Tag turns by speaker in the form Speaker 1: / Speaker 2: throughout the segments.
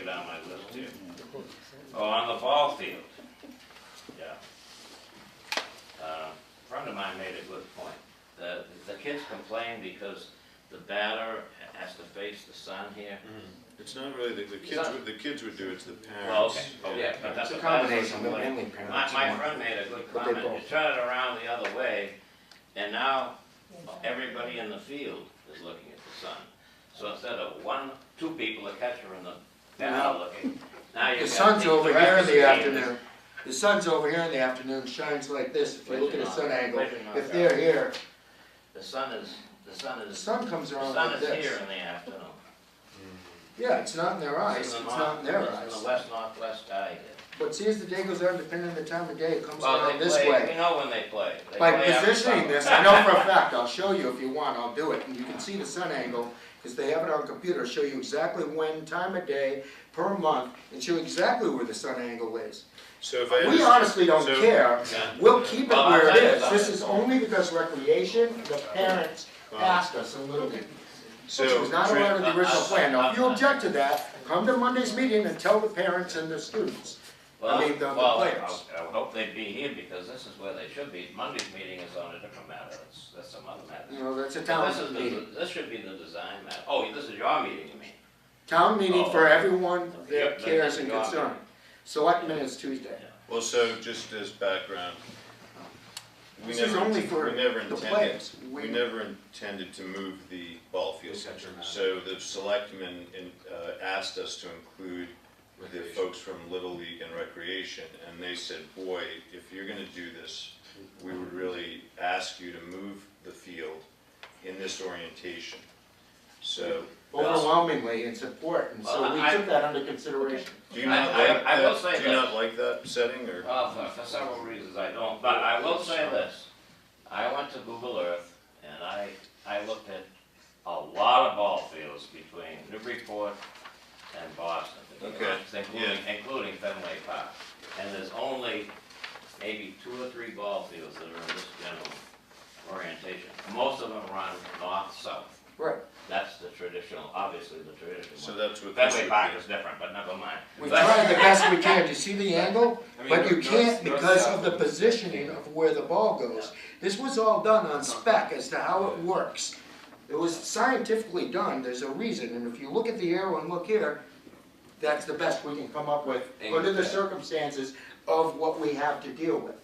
Speaker 1: it on my list too. Oh, on the ball field, yeah. Uh, a Friend of mine made a good point. The, the kids complain because the batter has to face the sun here.
Speaker 2: It's not really, the, the kids, would- the kids would do, it, it's the
Speaker 1: Well,
Speaker 2: parents.
Speaker 1: okay, oh,
Speaker 3: Yeah,
Speaker 1: yeah, but that's
Speaker 3: It's a
Speaker 1: what
Speaker 3: combination,
Speaker 1: that's what-
Speaker 3: but mainly
Speaker 1: My,
Speaker 3: parents.
Speaker 1: my friend made a good
Speaker 3: But they
Speaker 1: comment, you
Speaker 3: both-
Speaker 1: turn it around the other way, and now everybody in the field is looking at the sun. So instead of one, two people, the catcher and the batter looking, now you've got.
Speaker 3: The sun's over
Speaker 1: rest
Speaker 3: here
Speaker 1: of
Speaker 3: in the
Speaker 1: team is-
Speaker 3: afternoon, the sun's over here in the afternoon, shines like this, if you look at a sun angle, if they're here,
Speaker 1: The sun is, the sun
Speaker 3: the
Speaker 1: is,
Speaker 3: sun comes
Speaker 1: the
Speaker 3: around
Speaker 1: sun
Speaker 3: like
Speaker 1: is here
Speaker 3: this.
Speaker 1: in the afternoon.
Speaker 3: Yeah, it's not in their eyes,
Speaker 1: in
Speaker 3: it's
Speaker 1: the
Speaker 3: not
Speaker 1: north-
Speaker 3: in their
Speaker 1: it's in the
Speaker 3: eyes.
Speaker 1: west northwest eye here.
Speaker 3: But see, as the day goes on, depending on the time of day, it comes
Speaker 1: Well, they
Speaker 3: around this
Speaker 1: play- We
Speaker 3: way.
Speaker 1: know when they play. They
Speaker 3: By
Speaker 1: play after
Speaker 3: positioning
Speaker 1: supper.
Speaker 3: this, I know for a fact, I'll show you if you want, I'll do it, and you can see the sun angle, because they have it on computer, It'll show you exactly when, time of day, per month, and show you exactly where the sun angle is.
Speaker 2: So if I.
Speaker 3: We honestly don't
Speaker 2: so-
Speaker 3: care,
Speaker 1: Yeah.
Speaker 3: We'll keep it
Speaker 1: Well, I'll
Speaker 3: where it
Speaker 1: tell you
Speaker 3: is,
Speaker 1: something.
Speaker 3: this is only because recreation, the parents asked us a little bit, which
Speaker 2: So,
Speaker 3: was not
Speaker 2: Fran-
Speaker 3: allowed in the original plan, now, if you object to that, come to Monday's meeting and tell the parents and the students.
Speaker 1: Well,
Speaker 3: I mean, the- the
Speaker 1: well, I-
Speaker 3: players.
Speaker 1: I would hope they'd be here because this is where they should be. Monday's meeting is on a different matter. That's, that's some other
Speaker 3: You
Speaker 1: matter.
Speaker 3: know, that's a
Speaker 1: This is
Speaker 3: town meeting,
Speaker 1: the, this should be the design matter. Oh, this is your meeting, you mean?
Speaker 3: town meeting for
Speaker 1: Oh.
Speaker 3: everyone that
Speaker 1: Yep, that-
Speaker 3: cares and
Speaker 1: you are.
Speaker 3: concern. Selectmen is Tuesday,
Speaker 2: Well, so just as background. we
Speaker 3: This is
Speaker 2: never
Speaker 3: only
Speaker 2: int-
Speaker 3: for
Speaker 2: we never
Speaker 3: the
Speaker 2: intended-
Speaker 3: players,
Speaker 2: We
Speaker 3: we,
Speaker 2: never intended to move the ball field.
Speaker 4: Center map.
Speaker 2: So the selectmen in- uh, asked us to include the folks from Little League and Recreation, and they said, boy, if you're gonna do this, we would really ask you to move the field in this orientation. So,
Speaker 3: overwhelmingly in support, and so
Speaker 1: Well,
Speaker 3: we
Speaker 1: I-
Speaker 3: took that under consideration.
Speaker 2: do you
Speaker 1: I-
Speaker 2: not
Speaker 1: I-
Speaker 2: like
Speaker 1: I will say
Speaker 2: that, do you
Speaker 1: that-
Speaker 2: not like that setting, or?
Speaker 1: Well, Oh, for, for several reasons I don't, but I will say this. I went to Google Earth and I, I looked at a lot of ball fields between Newburyport and Boston.
Speaker 2: Okay,
Speaker 1: Including, including Fenway Park. And there's only maybe two or three ball fields that are in this general orientation. Most of them run north-south.
Speaker 3: Right,
Speaker 1: That's the traditional, obviously the traditional
Speaker 2: So
Speaker 1: one.
Speaker 2: that's what this would
Speaker 1: Fenway
Speaker 2: be.
Speaker 1: Park is different, but never mind.
Speaker 3: we
Speaker 1: But-
Speaker 3: tried the best we can, do you see the angle?
Speaker 4: I mean,
Speaker 3: But you
Speaker 4: north-
Speaker 3: can't
Speaker 4: north-
Speaker 3: because
Speaker 4: south
Speaker 3: of the
Speaker 4: and-
Speaker 3: positioning of where the ball goes. This was all done on spec as to how it works. It was scientifically done, there's a reason, and if you look at the arrow and look here, that's the best we can come up with under the circumstances of what we have to deal with.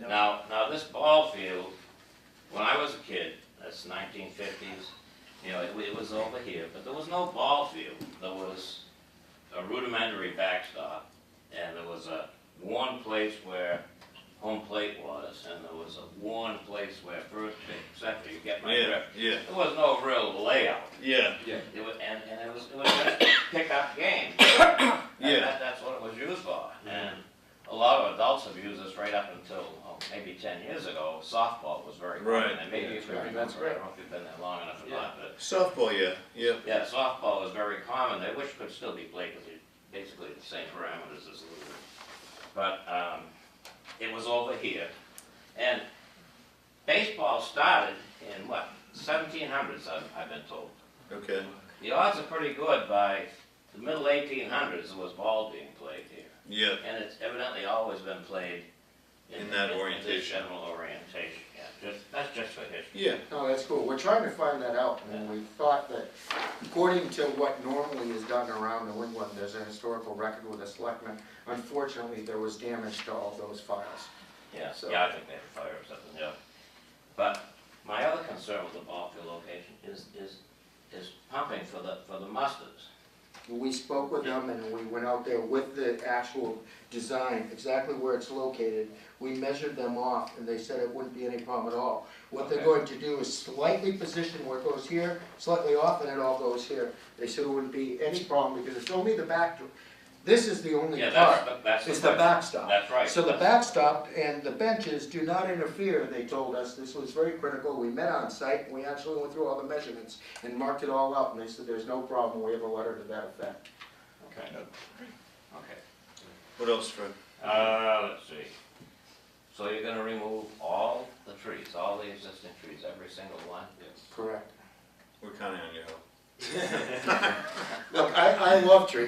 Speaker 1: Now, now this ball field, when I was a kid, that's nineteen fifties, you know, it, it was over here, but there was no ball field. There was a rudimentary backstop, and there was a worn place where home plate was, and there was a worn place where first base, et cetera, you get my
Speaker 2: Yeah,
Speaker 1: drift.
Speaker 2: yeah,
Speaker 1: There was no real layout.
Speaker 2: yeah,
Speaker 1: It was, and, and it was, it was just pickup game.
Speaker 2: Yeah. Mm-hmm.
Speaker 1: And that, that's what it was used for, and a lot of adults have used this right up until, oh, maybe ten years ago, softball was very
Speaker 2: Right.
Speaker 1: common, and maybe you can
Speaker 3: Yeah,
Speaker 1: remember, I
Speaker 3: that's
Speaker 1: don't know if you've been there long enough or not, but,
Speaker 2: softball, yeah, yeah.
Speaker 1: yeah, softball is very common, they wish it could still be played, because it's basically the same parameters as Luger. But, um, it was over here, and baseball started in what, seventeen hundreds, I've, I've been told.
Speaker 2: Okay,
Speaker 1: The odds are pretty good by the middle eighteen hundreds was ball being played here.
Speaker 2: yeah,
Speaker 1: And it's evidently always been played.
Speaker 2: In that
Speaker 1: this
Speaker 2: orientation.
Speaker 1: General orientation, yeah, just, that's just for history.
Speaker 2: yeah.
Speaker 3: No, that's cool, we're trying to find that out, and we thought that according to what normally is done around New England, there's a historical record with a selectman. Unfortunately, there was damage to all those files.
Speaker 1: Yeah,
Speaker 3: So-
Speaker 1: yeah, I think they have a fire or something, yeah. But my other concern with the ball field location is, is, is pumping for the, for the mustards.
Speaker 3: We spoke with them and we went out there with the actual design, exactly where it's located. We measured them off and they said it wouldn't be any problem at all. What they're
Speaker 1: Okay.
Speaker 3: going to do is slightly position where it goes here, slightly off, and it all goes here. They said it wouldn't be any problem because it's only the back, this is the only
Speaker 1: Yeah, that's,
Speaker 3: part.
Speaker 1: the- that's the.
Speaker 3: It's the
Speaker 1: question.
Speaker 3: backstop.
Speaker 1: That's right.
Speaker 3: So the
Speaker 1: that's-
Speaker 3: backstop and the benches do not interfere, they told us. This was very critical. We met on site and we actually went through all the measurements and marked it all out and they said there's no problem. We have a letter to that effect.
Speaker 1: Okay. Okay.
Speaker 2: What else, Fred?
Speaker 1: Uh, let's see. So you're gonna remove all the trees, all the existing trees, every single one?
Speaker 3: Correct.
Speaker 2: We're counting on your help.
Speaker 3: Look, I, I love trees.